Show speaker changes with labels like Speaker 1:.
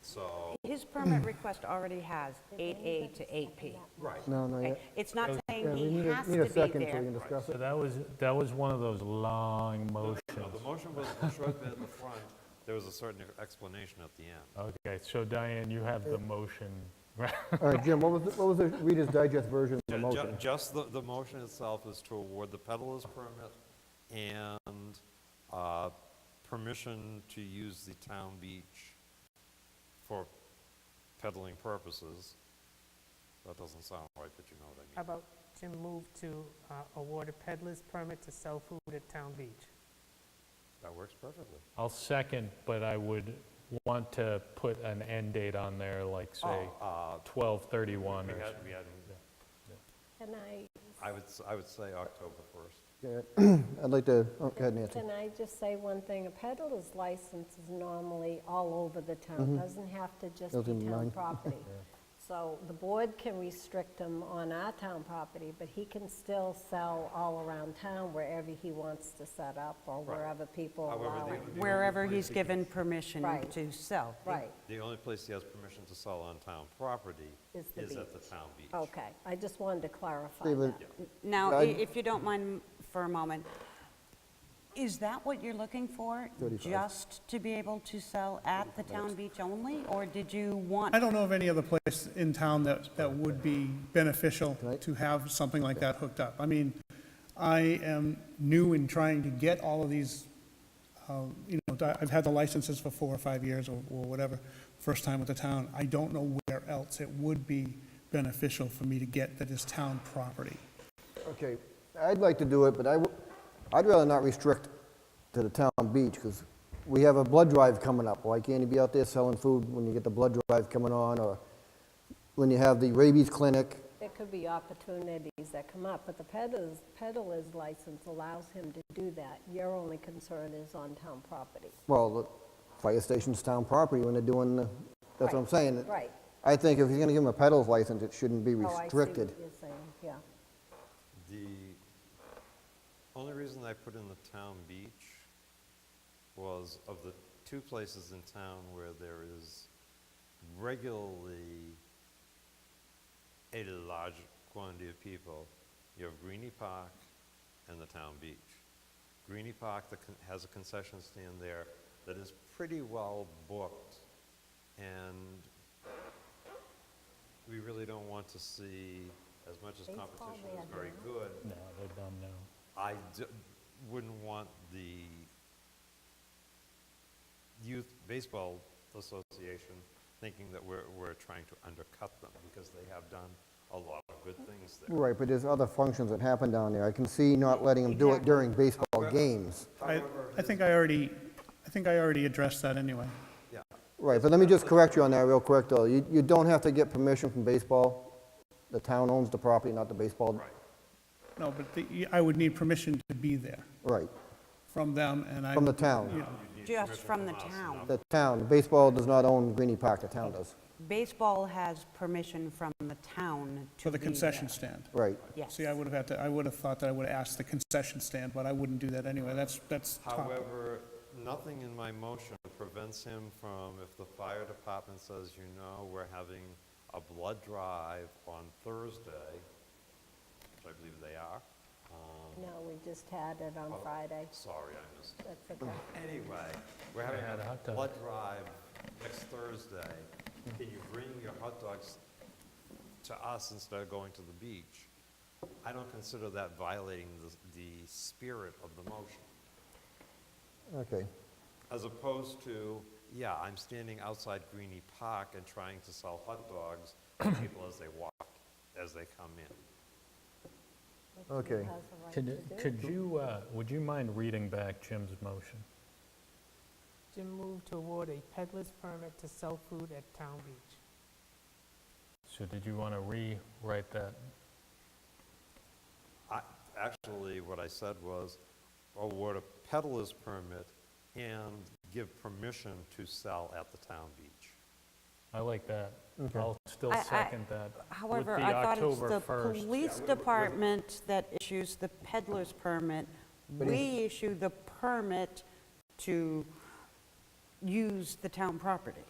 Speaker 1: so,
Speaker 2: His permit request already has 8A to 8P.
Speaker 1: right.
Speaker 3: No, no, yeah.
Speaker 2: Okay, It's not
Speaker 3: Yeah,
Speaker 2: saying
Speaker 3: we
Speaker 2: he
Speaker 3: need
Speaker 2: has
Speaker 3: a, need a
Speaker 2: to
Speaker 3: second
Speaker 2: be
Speaker 3: so we can
Speaker 2: there.
Speaker 3: discuss
Speaker 4: So
Speaker 3: it.
Speaker 4: that was, that was one of those long motions.
Speaker 1: No, the motion was the shrubbery in the front, there was a certain explanation at the end.
Speaker 4: Okay, so Diane, you have the motion.
Speaker 3: All right, Jim, what was, the- what was the Reader's Digest version of the
Speaker 1: Ju- ju-
Speaker 3: motion?
Speaker 1: Just the, the motion itself is to award the peddler's permit and uh, permission to use the town beach for peddling purposes. That doesn't sound right, but you know what I
Speaker 5: How
Speaker 1: mean.
Speaker 5: about Jim move to uh, award a peddler's permit to sell food at Town Beach?
Speaker 1: That works perfectly.
Speaker 4: I'll second, but I would want to put an end date on there, like, say,
Speaker 1: Oh, uh,
Speaker 4: 12/31
Speaker 1: We had,
Speaker 4: or something.
Speaker 1: we had,
Speaker 6: Can I,
Speaker 1: I would, s- I would say October 1st.
Speaker 3: Yeah, I'd like to, oh, go ahead, Nancy.
Speaker 6: can I just say one thing? A peddler's license is normally all over the town, doesn't have to just
Speaker 3: Doesn't
Speaker 6: be town
Speaker 3: mind.
Speaker 6: property. So the board can restrict him on our town property, but he can still sell all around town wherever he wants to set up or wherever people
Speaker 1: However,
Speaker 6: allow
Speaker 1: the-
Speaker 6: it.
Speaker 1: the only
Speaker 2: Wherever
Speaker 1: place
Speaker 2: he's
Speaker 1: he can-
Speaker 2: given permission
Speaker 6: Right.
Speaker 2: to sell.
Speaker 6: Right,
Speaker 1: The only place he has permission to sell on town property
Speaker 6: Is the
Speaker 1: is at the
Speaker 6: beach.
Speaker 1: town beach.
Speaker 6: okay. I just wanted to clarify
Speaker 3: David,
Speaker 6: that.
Speaker 2: Now, i-
Speaker 3: I-
Speaker 2: if you don't mind for a moment, is that what you're looking for?
Speaker 3: 35.
Speaker 2: Just to be able to sell at the town beach only, or did you want?
Speaker 7: I don't know of any other place in town that, that would be beneficial
Speaker 3: Right.
Speaker 7: to have something like that hooked up. I mean, I am new in trying to get all of these, um, you know, di- I've had the licenses for four or five years or or whatever, first time with the town. I don't know where else it would be beneficial for me to get that is town property.
Speaker 3: Okay, I'd like to do it, but I, w- I'd rather not restrict to the town beach, because we have a blood drive coming up. Why can't you be out there selling food when you get the blood drive coming on, or when you have the rabies clinic?
Speaker 6: There could be opportunities that come up, but the peddler's, peddler's license allows him to do that. Your only concern is on town property.
Speaker 3: Well, the fire station's town property when they're doing, the- that's what I'm
Speaker 6: Right,
Speaker 3: saying.
Speaker 6: right.
Speaker 3: I think if you're gonna give them a peddler's license, it shouldn't be
Speaker 6: Oh, I see
Speaker 3: restricted.
Speaker 6: what you're saying, yeah.
Speaker 1: The only reason I put in the town beach was of the two places in town where there is regularly a large quantity of people, you have Greenie Park and the town beach. Greenie Park that con- has a concession stand there that is pretty well booked, and we really don't want to see, as much as
Speaker 6: Baseball,
Speaker 1: competition
Speaker 6: they
Speaker 1: is
Speaker 6: have
Speaker 1: very
Speaker 6: that.
Speaker 1: good,
Speaker 4: No, they're done now.
Speaker 1: I d- wouldn't want the Youth Baseball Association thinking that we're, we're trying to undercut them because they have done a lot of good things there.
Speaker 3: Right, but there's other functions that happen down there. I can see not letting them do it during baseball games.
Speaker 7: I, I think I already, I think I already addressed that anyway.
Speaker 1: Yeah,
Speaker 3: Right, but let me just correct you on that real quick, though. You, you don't have to get permission from baseball. The town owns the property, not the baseball.
Speaker 1: right.
Speaker 7: No, but the- I would need permission to be there
Speaker 3: Right,
Speaker 7: from them and I.
Speaker 3: from the town.
Speaker 7: Yeah.
Speaker 2: Just from the town.
Speaker 3: The town, baseball does not own Greenie Park, the town does.
Speaker 2: Baseball has permission from the town to
Speaker 7: For the
Speaker 2: be
Speaker 7: concession
Speaker 2: there.
Speaker 7: stand.
Speaker 3: Right.
Speaker 2: Yes.
Speaker 7: See, I would have had to, I would have thought that I would have asked the concession stand, but I wouldn't do that anyway. That's, that's top.
Speaker 1: However, nothing in my motion prevents him from, if the fire department says, you know, we're having a blood drive on Thursday, which I believe they are. um,
Speaker 6: No, we just had it on Friday.
Speaker 1: Sorry, I missed it.
Speaker 6: That's okay.
Speaker 1: Mm. Anyway, we're having
Speaker 4: had a hot
Speaker 1: a
Speaker 4: dog.
Speaker 1: blood drive next Thursday. Can you bring your hot dogs to us instead of going to the beach? I don't consider that violating the, the spirit of the motion.
Speaker 3: Okay.
Speaker 1: As opposed to, yeah, I'm standing outside Greenie Park and trying to sell hot dogs to people as they walk, as they come in.
Speaker 3: Okay.
Speaker 6: Has the right
Speaker 4: Could, could you, uh, would you mind reading back Jim's motion?
Speaker 5: Jim move to award a peddler's permit to sell food at Town Beach.
Speaker 4: So did you want to rewrite that?
Speaker 1: I, actually, what I said was award a peddler's permit and give permission to sell at the town beach.
Speaker 4: I like that. I'll still
Speaker 2: I- I-
Speaker 4: second that. with
Speaker 2: However,
Speaker 4: the
Speaker 2: I thought it's
Speaker 4: October
Speaker 2: the
Speaker 4: 1st.
Speaker 2: police department that issues the peddler's permit. We issue the permit to use the town property.